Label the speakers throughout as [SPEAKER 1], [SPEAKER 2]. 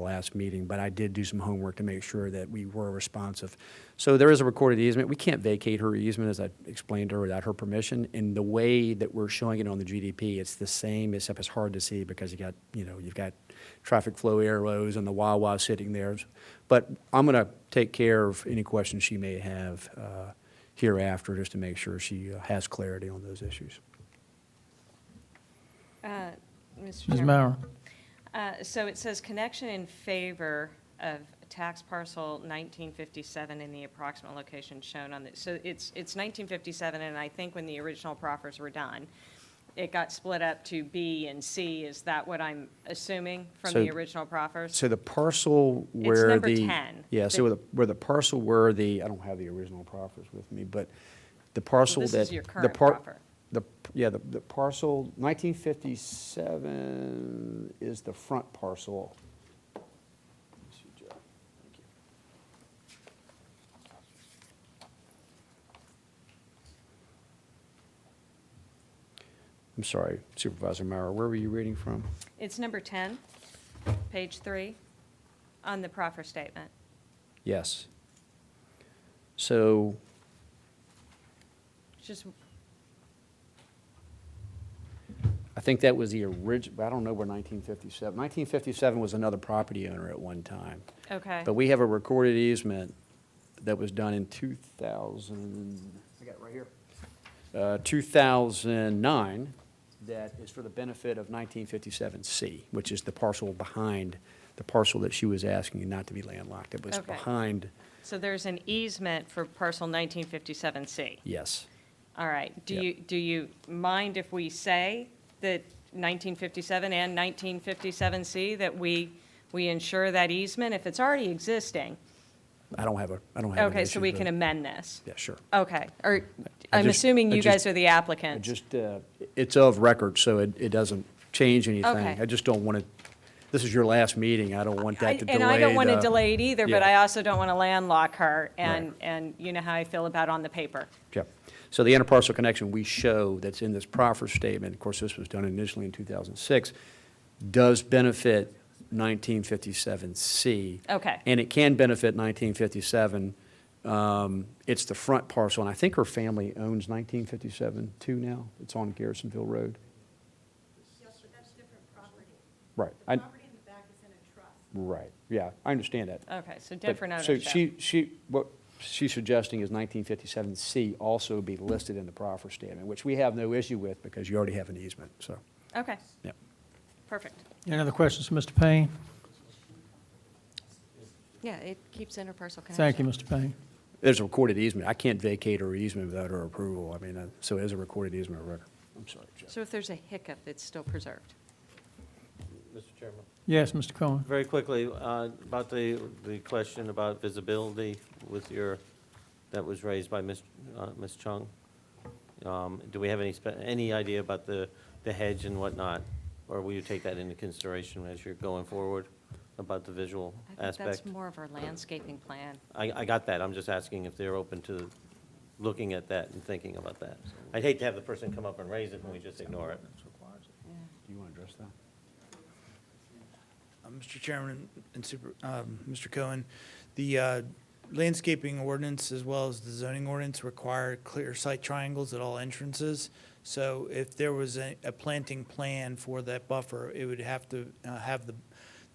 [SPEAKER 1] the last meeting, but I did do some homework to make sure that we were responsive. So there is a recorded easement. We can't vacate her easement, as I explained to her, without her permission. And the way that we're showing it on the GDP, it's the same, except it's hard to see because you got, you know, you've got traffic flow arrows and the Wawa sitting there. But I'm going to take care of any questions she may have uh, hereafter, just to make sure she uh, has clarity on those issues.
[SPEAKER 2] Uh, Mr.
[SPEAKER 3] Ms.
[SPEAKER 2] Chairman.
[SPEAKER 3] Mauer,
[SPEAKER 2] Uh, So it says connection in favor of tax parcel 1957 in the approximate location shown on the, so it's, it's 1957, and I think when the original proffers were done, it got split up to B and C. Is that what I'm assuming from
[SPEAKER 1] So-
[SPEAKER 2] the original proffers?
[SPEAKER 1] So the parcel where
[SPEAKER 2] number
[SPEAKER 1] the.
[SPEAKER 2] 10.
[SPEAKER 1] Yeah, so
[SPEAKER 2] The-
[SPEAKER 1] where the- where the parcel where the, I don't have the original proffers with me, but the parcel
[SPEAKER 2] this
[SPEAKER 1] that.
[SPEAKER 2] is your
[SPEAKER 1] the
[SPEAKER 2] current
[SPEAKER 1] par-
[SPEAKER 2] proffer.
[SPEAKER 1] The, yeah, the, the parcel, 1957 is the front parcel. Let me see, Joe. Thank you. I'm sorry Supervisor Mauer, where were you reading from?
[SPEAKER 2] It's number 10, page three, on the proffer statement.
[SPEAKER 1] Yes. So,
[SPEAKER 2] It's Just,
[SPEAKER 1] I think that was the original, I don't know where 1957, 1957 was another property owner at one time.
[SPEAKER 2] okay.
[SPEAKER 1] But we have a recorded easement that was done in 2000. I got it right uh, here. 2009, that is for the benefit of 1957C, which is the parcel behind, the parcel that she was asking not to be landlocked. It was
[SPEAKER 2] Okay.
[SPEAKER 1] behind,
[SPEAKER 2] So there's an easement for parcel 1957C.
[SPEAKER 1] yes.
[SPEAKER 2] All right, do
[SPEAKER 1] Yeah.
[SPEAKER 2] you, do you mind if we say that 1957 and 1957C, that we, we ensure that easement if it's already existing?
[SPEAKER 1] I don't have a, I don't have an
[SPEAKER 2] Okay, so
[SPEAKER 1] issue
[SPEAKER 2] we
[SPEAKER 1] with-
[SPEAKER 2] can amend this?
[SPEAKER 1] Yeah, sure.
[SPEAKER 2] Okay, or,
[SPEAKER 1] I
[SPEAKER 2] I'm
[SPEAKER 1] just-
[SPEAKER 2] assuming
[SPEAKER 1] I
[SPEAKER 2] you
[SPEAKER 1] just-
[SPEAKER 2] guys are the
[SPEAKER 1] I
[SPEAKER 2] applicants?
[SPEAKER 1] just, uh, it's of record, so it, it doesn't change anything.
[SPEAKER 2] Okay.
[SPEAKER 1] I just don't want to, this is your last meeting, I don't want that to
[SPEAKER 2] I-
[SPEAKER 1] delay
[SPEAKER 2] And I don't want to
[SPEAKER 1] the-
[SPEAKER 2] delay it either, but
[SPEAKER 1] Yeah.
[SPEAKER 2] I also don't want to landlock her, and,
[SPEAKER 1] Right.
[SPEAKER 2] and you know how I feel about on the paper.
[SPEAKER 1] Yep. So the interparcel connection we show that's in this proffer statement, of course, this was done initially in 2006, does benefit 1957C.
[SPEAKER 2] Okay.
[SPEAKER 1] And it can benefit 1957. Um, It's the front parcel, and I think her family owns 1957 too now. It's on Garrisonville Road.
[SPEAKER 4] Yes, but that's different property.
[SPEAKER 1] Right.
[SPEAKER 4] The
[SPEAKER 1] I-
[SPEAKER 4] property in the back is in a trust.
[SPEAKER 1] Right, yeah, I understand that.
[SPEAKER 2] Okay, so
[SPEAKER 1] But-
[SPEAKER 2] different
[SPEAKER 1] So
[SPEAKER 2] ownership.
[SPEAKER 1] she, she, what she's suggesting is 1957C also be listed in the proffer statement, which we have no issue with because you already have an easement, so,
[SPEAKER 2] Okay,
[SPEAKER 1] yeah.
[SPEAKER 2] perfect.
[SPEAKER 3] any other questions for Mr. Payne?
[SPEAKER 2] Yeah, it keeps interparcel connection.
[SPEAKER 3] Thank you, Mr. Payne.
[SPEAKER 1] There's a recorded easement. I can't vacate her easement without her approval. I mean, uh, so it is a recorded easement of record. I'm sorry, Jeff.
[SPEAKER 2] So if there's a hiccup, it's still preserved?
[SPEAKER 5] Mr. Chairman.
[SPEAKER 3] Yes, Mr. Cohen.
[SPEAKER 5] Very quickly, uh, about the, the question about visibility with your, that was raised by Ms. uh, Ms. Chung. Um, Do we have any, spe- any idea about the, the hedge and whatnot? Or will you take that into consideration as you're going forward about the visual
[SPEAKER 2] I think
[SPEAKER 5] aspect?
[SPEAKER 2] that's more of our landscaping plan.
[SPEAKER 5] I, I got that. I'm just asking if they're open to looking at that and thinking about that. I'd hate to have the person come up and raise it and we just ignore it.
[SPEAKER 1] Do you want to address that?
[SPEAKER 6] Uh, Mr. Chairman and Super, um, Mr. Cohen, the uh, landscaping ordinance as well as the zoning ordinance require clear sight triangles at all entrances. So if there was a a planting plan for that buffer, it would have to uh, have the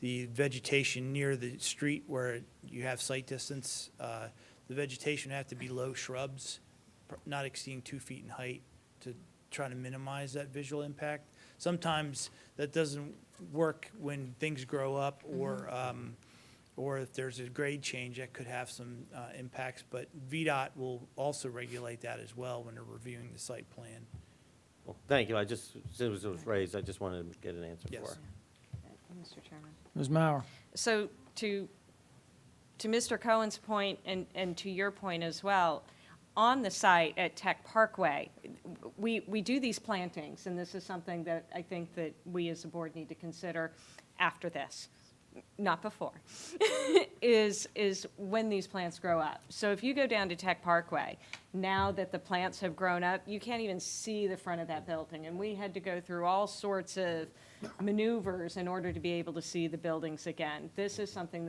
[SPEAKER 6] the vegetation near the street where you have sight distance. uh, The vegetation would have to be low shrubs, pr- not exceeding two feet in height to try to minimize that visual impact. Sometimes that doesn't work when things grow up or, um, or if there's a grade change, that could have some, uh, impacts. But VDOT will also regulate that as well when they're reviewing the site plan.
[SPEAKER 5] Well, Thank you. I just, since it was raised, I just wanted to get an answer for
[SPEAKER 6] Yes.
[SPEAKER 5] it.
[SPEAKER 2] Mr. Chairman.
[SPEAKER 3] Ms. Mauer,
[SPEAKER 2] So to, to Mr. Cohen's point and, and to your point as well, on the site at Tech Parkway, we, we do these plantings, and this is something that I think that we as a board need to consider after this, not before, is, is when these plants grow up. So if you go down to Tech Parkway, now that the plants have grown up, you can't even see the front of that building. And we had to go through all sorts of maneuvers in order to be able to see the buildings again. This is something